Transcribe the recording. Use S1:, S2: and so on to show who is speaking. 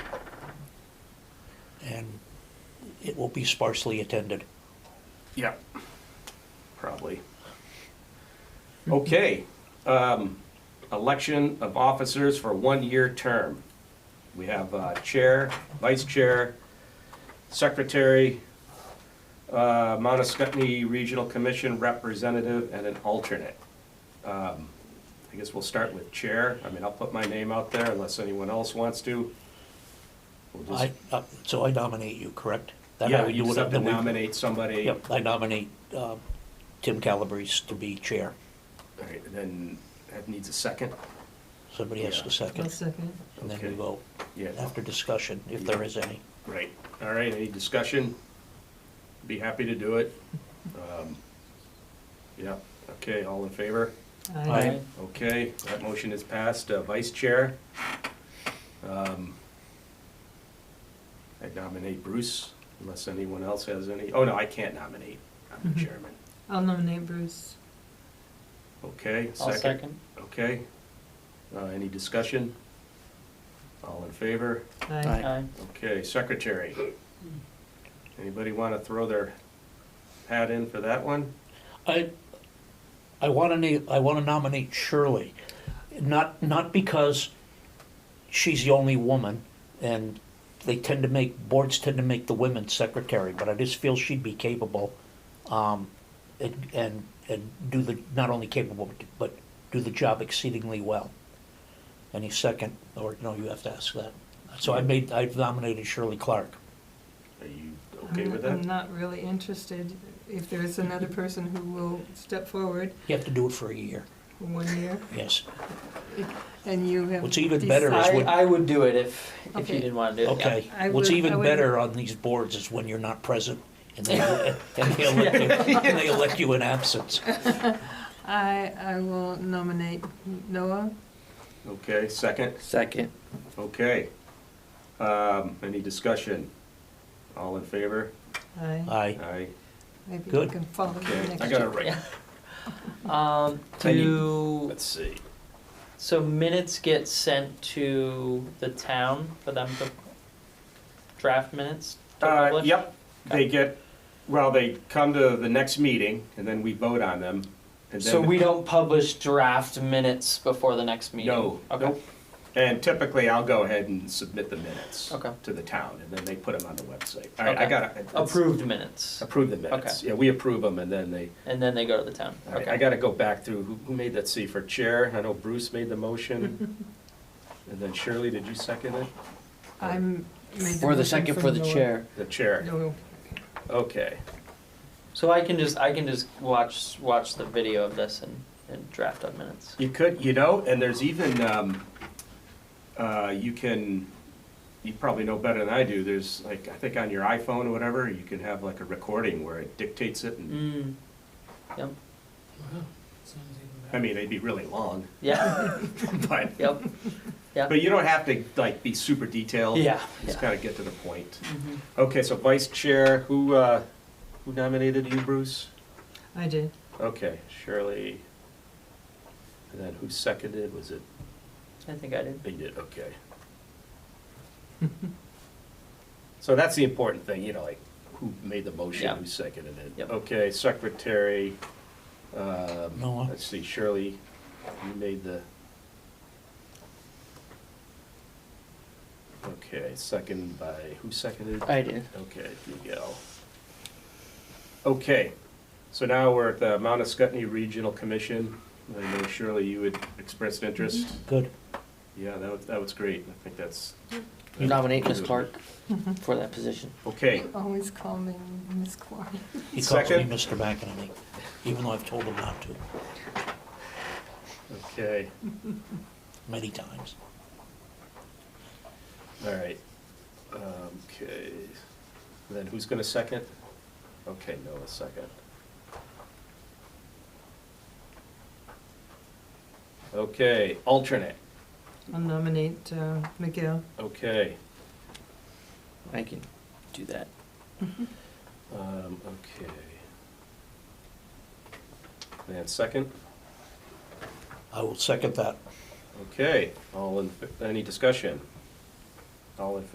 S1: and it will be sparsely attended.
S2: Yeah, probably. Okay, um, election of officers for one-year term. We have uh, Chair, Vice Chair, Secretary, uh, Mount Scottney Regional Commission Representative, and an alternate. Um, I guess we'll start with Chair. I mean, I'll put my name out there unless anyone else wants to. We'll just-
S1: I, uh, so I nominate you, correct? That I
S2: Yeah,
S1: would
S2: you
S1: do
S2: just
S1: it
S2: have to
S1: the week-
S2: nominate somebody.
S1: Yep, I nominate, uh, Tim Calabrese to be chair.
S2: All right, and then that needs a second.
S1: Somebody has
S2: Yeah.
S1: to second,
S3: second.
S1: and then we
S2: Okay.
S1: vote
S2: Yeah,
S1: after discussion, if there is any.
S2: right. All right, any discussion? Be happy to do it. Um, Yeah, okay, all in favor?
S1: Aye.
S2: Okay, that motion is passed. Uh, Vice Chair? um, I nominate Bruce, unless anyone else has any. Oh, no, I can't nominate. I'm the
S3: Mhm.
S2: chairman.
S3: I'll nominate Bruce.
S2: Okay,
S4: I'll
S2: second.
S4: second.
S2: Okay. Uh, Any discussion? All in favor?
S3: Aye.
S4: Aye.
S2: Okay, secretary. Anybody want to throw their hat in for that one?
S1: I, I wanna na- I wanna nominate Shirley, not, not because she's the only woman, and they tend to make, boards tend to make the women secretary, but I just feel she'd be capable, um, and, and, and do the, not only capable, but- but do the job exceedingly well. Any second, or, no, you have to ask that. So I made, I've nominated Shirley Clark.
S2: Are you okay
S3: I'm-
S2: with
S3: I'm
S2: that?
S3: not really interested. If there is another person who will step forward
S1: You have to do it for a year,
S3: for one year,
S1: yes.
S3: and you have.
S1: What's even better is
S3: decided-
S1: when-
S4: I, I would do it if, if
S3: Okay.
S4: you didn't want to do it.
S1: Okay,
S3: I
S1: what's
S3: would- I
S1: even
S3: would-
S1: better on these boards is when you're not present and they, and they elect you, and they elect you in absence.
S3: I, I will nominate Noah.
S2: Okay, second,
S4: Second.
S2: okay. Um, any discussion? All in favor?
S3: Aye.
S1: Aye,
S2: Aye.
S3: Maybe you
S1: Good.
S3: can follow me
S2: Okay, I
S3: next
S2: got it
S3: year.
S2: right.
S4: Um,
S2: I need-
S4: do,
S2: Let's see.
S4: so minutes get sent to the town for them to draft minutes? to
S2: Uh,
S4: publish?
S2: yep, they get, well, they come to the next meeting and then we vote on them. and
S4: So
S2: then-
S4: we don't publish draft minutes before the next meeting?
S2: No,
S4: Okay,
S2: nope. And typically I'll go ahead and submit the minutes.
S4: Okay.
S2: To the town and then they put them on the website. All right, I
S4: Okay.
S2: got it. It's-
S4: approved minutes,
S2: Approve the minutes. Yeah, we approve them, and then they,
S4: and then they go to the town,
S2: all right, I
S4: okay.
S2: gotta go back through, who, who made that, see, for chair, I know Bruce made the motion. And then Shirley, did you second it?
S3: I'm. made
S5: For the
S3: motion
S5: second for the
S3: Noah.
S5: chair.
S2: The chair,
S3: Noah.
S2: okay.
S4: So I can just, I can just watch, watch the video of this and, and draft up minutes.
S2: You could, you know, and there's even, um, uh, you can, you probably know better than I do, there's like, I think on your iPhone or whatever, you can have like a recording where it dictates it, and,
S4: Mm, Mm-hmm.
S2: I mean, it'd be really long,
S4: yeah,
S2: but,
S4: yep,
S2: but you don't have to like be super detailed.
S4: yeah,
S2: Just
S4: yeah.
S2: gotta get to the point.
S4: Mhm.
S2: Okay, so vice chair, who, uh, who nominated you, Bruce?
S3: I did.
S2: Okay, Shirley. And then who seconded, was it,
S4: I think I did.
S2: they did, okay. So that's the important thing, you know, like, who made the motion,
S4: Yeah.
S2: who seconded it?
S4: Yep.
S2: Okay, secretary, um,
S1: Noah.
S2: let's see, Shirley, you made the. Okay, second by, who seconded?
S5: I did.
S2: Okay, you go. Okay, so now we're at the Mount Escutney Regional Commission. I know Shirley, you had expressed interest.
S1: good.
S2: Yeah, that was, that was great. I think that's.
S5: Nominate Ms. Clark for that position.
S2: Okay,
S3: Always call me Miss Clark.
S1: He calls me
S2: Second.
S1: Mr. McEnany, even though I've told him not to
S2: okay,
S1: many times.
S2: all right. Um, Okay, then who's gonna second? Okay, Noah second. Okay, alternate,
S3: I'll nominate uh, Miguel.
S2: okay.
S5: I can do that.
S2: Um, okay. And second,
S1: I will second that.
S2: okay, all in, any discussion? All in